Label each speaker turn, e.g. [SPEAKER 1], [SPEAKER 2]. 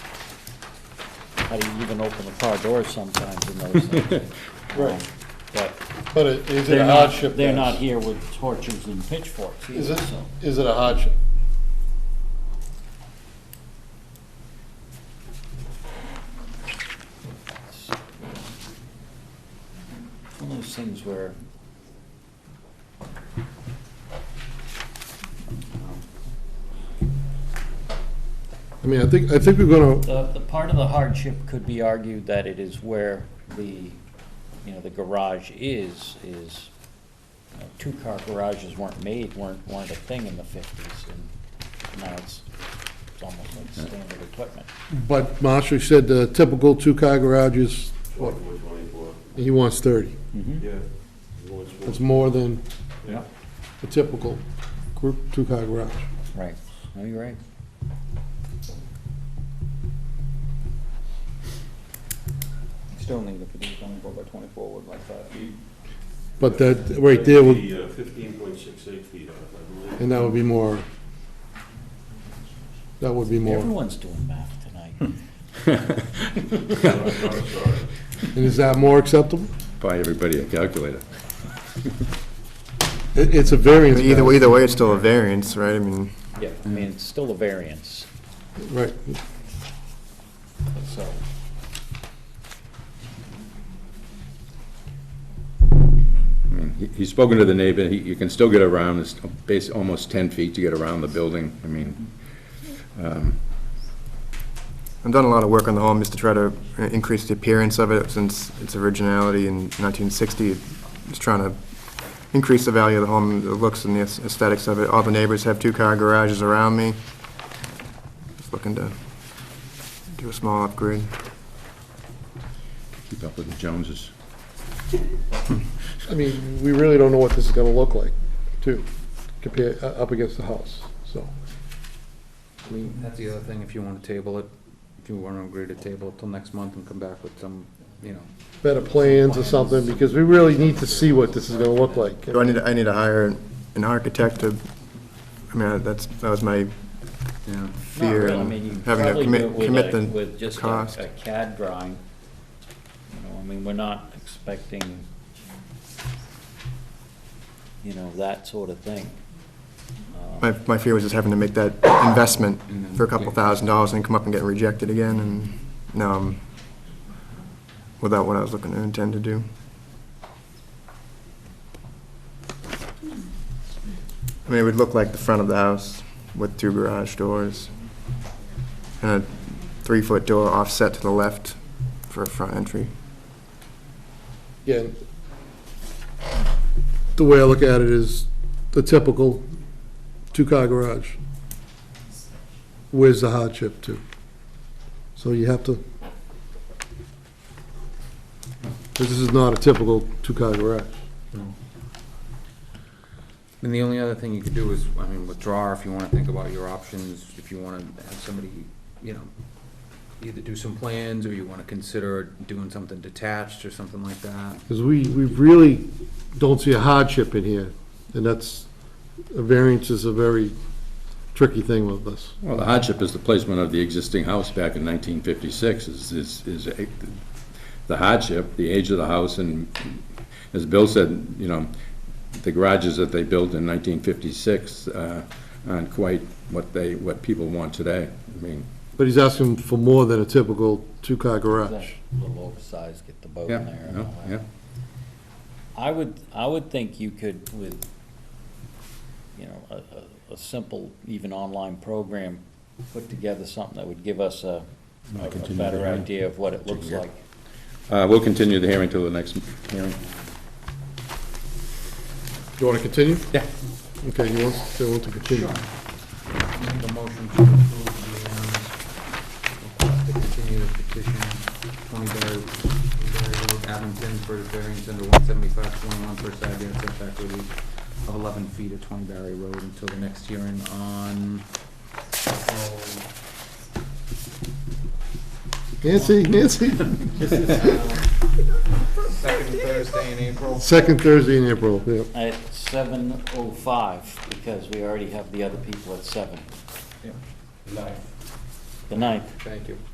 [SPEAKER 1] how do you even open the car doors sometimes in those things? Um,
[SPEAKER 2] Right.
[SPEAKER 1] But
[SPEAKER 2] But it- is it
[SPEAKER 1] they're
[SPEAKER 2] a
[SPEAKER 1] not,
[SPEAKER 2] hardship?
[SPEAKER 1] they're
[SPEAKER 2] then?
[SPEAKER 1] not here with torches and pitchforks
[SPEAKER 2] Is
[SPEAKER 1] either,
[SPEAKER 2] it,
[SPEAKER 1] so.
[SPEAKER 2] is it a hardship?
[SPEAKER 1] One of those things where.
[SPEAKER 3] I mean, I think, I think we're gonna,
[SPEAKER 1] The, the part of the hardship could be argued that it is where the, you know, the garage is, is, you know, two-car garages weren't made, weren't, weren't a thing in the fifties, and now it's, it's almost like standard equipment.
[SPEAKER 3] but Marshall said the typical two-car garage is, what,
[SPEAKER 4] One twenty-four,
[SPEAKER 3] he wants thirty.
[SPEAKER 4] yeah. He wants one.
[SPEAKER 3] That's more than
[SPEAKER 1] Yeah.
[SPEAKER 3] the typical group two-car garage.
[SPEAKER 1] Right, no, you're right.
[SPEAKER 5] Still need a petition twenty-four by twenty-four wood like five feet.
[SPEAKER 3] But that, right there, would
[SPEAKER 4] uh, Fifteen point six eight feet off, I believe.
[SPEAKER 3] and that would be more, that would be more.
[SPEAKER 1] Everyone's doing math tonight.
[SPEAKER 6] Hmm.
[SPEAKER 4] Sorry, sorry, sorry.
[SPEAKER 3] And is that more acceptable?
[SPEAKER 7] Buy everybody a calculator.
[SPEAKER 3] It, it's a
[SPEAKER 6] I
[SPEAKER 3] variance.
[SPEAKER 6] mean, Either,
[SPEAKER 3] matter.
[SPEAKER 6] either way, it's still a variance, right? I mean,
[SPEAKER 1] Yeah, I mean, it's still a variance,
[SPEAKER 3] Right.
[SPEAKER 1] so.
[SPEAKER 7] I mean, he- He's spoken to the neighbor, He- you can still get around, it's bas almost 10 feet to get around the building. I mean,
[SPEAKER 6] I've done a lot of work on the home just to try to uh, increase the appearance of it since its originality in 1960. Just trying to increase the value of the home, the looks and the aesthetics of it. All the neighbors have two-car garages around me. Just looking to do a small upgrade.
[SPEAKER 7] keep up with the Joneses.
[SPEAKER 3] I mean, we really don't know what this is gonna look like, too, compared, uh, up against the house, so. I mean,
[SPEAKER 5] That's the other thing, if you wanna table it, if you wanna agree to table it till next month and come back with some, you know,
[SPEAKER 3] better plans or something, because we really need to see what this is gonna look like.
[SPEAKER 6] Do I need, to- I need to hire an architect to, I mean, that's, that was my
[SPEAKER 5] you know.
[SPEAKER 1] Not
[SPEAKER 6] fear
[SPEAKER 1] really, I mean, you
[SPEAKER 6] in
[SPEAKER 1] could
[SPEAKER 6] having to
[SPEAKER 1] probably do it
[SPEAKER 6] commit,
[SPEAKER 1] with
[SPEAKER 6] commit
[SPEAKER 1] a-
[SPEAKER 6] the
[SPEAKER 1] with just a-
[SPEAKER 6] cost.
[SPEAKER 1] a CAD drawing. You know, I mean, we're not expecting, you know, that sort of thing. Um,
[SPEAKER 6] My, my fear was just having to make that investment for a couple thousand dollars and come up and get rejected again, and now I'm without what I was looking to intend to do. I mean, it would look like the front of the house with two garage doors and a three-foot door offset to the left for a front entry.
[SPEAKER 3] Again, the way I look at it is the typical two-car garage. Where's the hardship too? So you have to, this is not a typical two-car garage.
[SPEAKER 5] And the only other thing you could do is, I mean, withdraw if you wanna think about your options, if you wanna have somebody, you know, either do some plans, or you wanna consider doing something detached or something like that.
[SPEAKER 3] Because we, we really don't see a hardship in here, and that's, a variance is a very tricky thing with us.
[SPEAKER 7] Well, the hardship is the placement of the existing house back in 1956 is, is, is a- the hardship, the age of the house, and as Bill said, you know, the garages that they built in 1956 uh, aren't quite what they, what people want today. I mean,
[SPEAKER 3] But he's asking for more than a typical two-car
[SPEAKER 1] That
[SPEAKER 3] garage.
[SPEAKER 1] Little oversized, get the boat
[SPEAKER 7] yeah,
[SPEAKER 1] in there and
[SPEAKER 7] no,
[SPEAKER 1] all
[SPEAKER 7] yeah.
[SPEAKER 1] that. I would, I would think you could with, you know, a, a, a simple, even online program, put together something that would give us a, a
[SPEAKER 7] continue
[SPEAKER 1] better
[SPEAKER 7] the hearing.
[SPEAKER 1] idea of what it looks
[SPEAKER 7] Yeah.
[SPEAKER 1] like.
[SPEAKER 7] Uh, We'll continue the hearing till the next hearing.
[SPEAKER 3] You want to continue?
[SPEAKER 7] Yeah.
[SPEAKER 3] Okay, you want, they want to continue.
[SPEAKER 5] Make a motion to approve the, um, request to continue the petition, twenty Berry, Berry Road, Abington, for the variance under one seventy-five twenty-one for side yard setback relief of eleven feet at twenty Berry Road until the next hearing on April,
[SPEAKER 3] Nancy, Nancy?
[SPEAKER 5] uh, second Thursday in April.
[SPEAKER 3] Second Thursday in April, yeah.
[SPEAKER 1] At seven oh five, because we already have the other people at seven.
[SPEAKER 5] Yeah.
[SPEAKER 1] The ninth.
[SPEAKER 5] Thank you.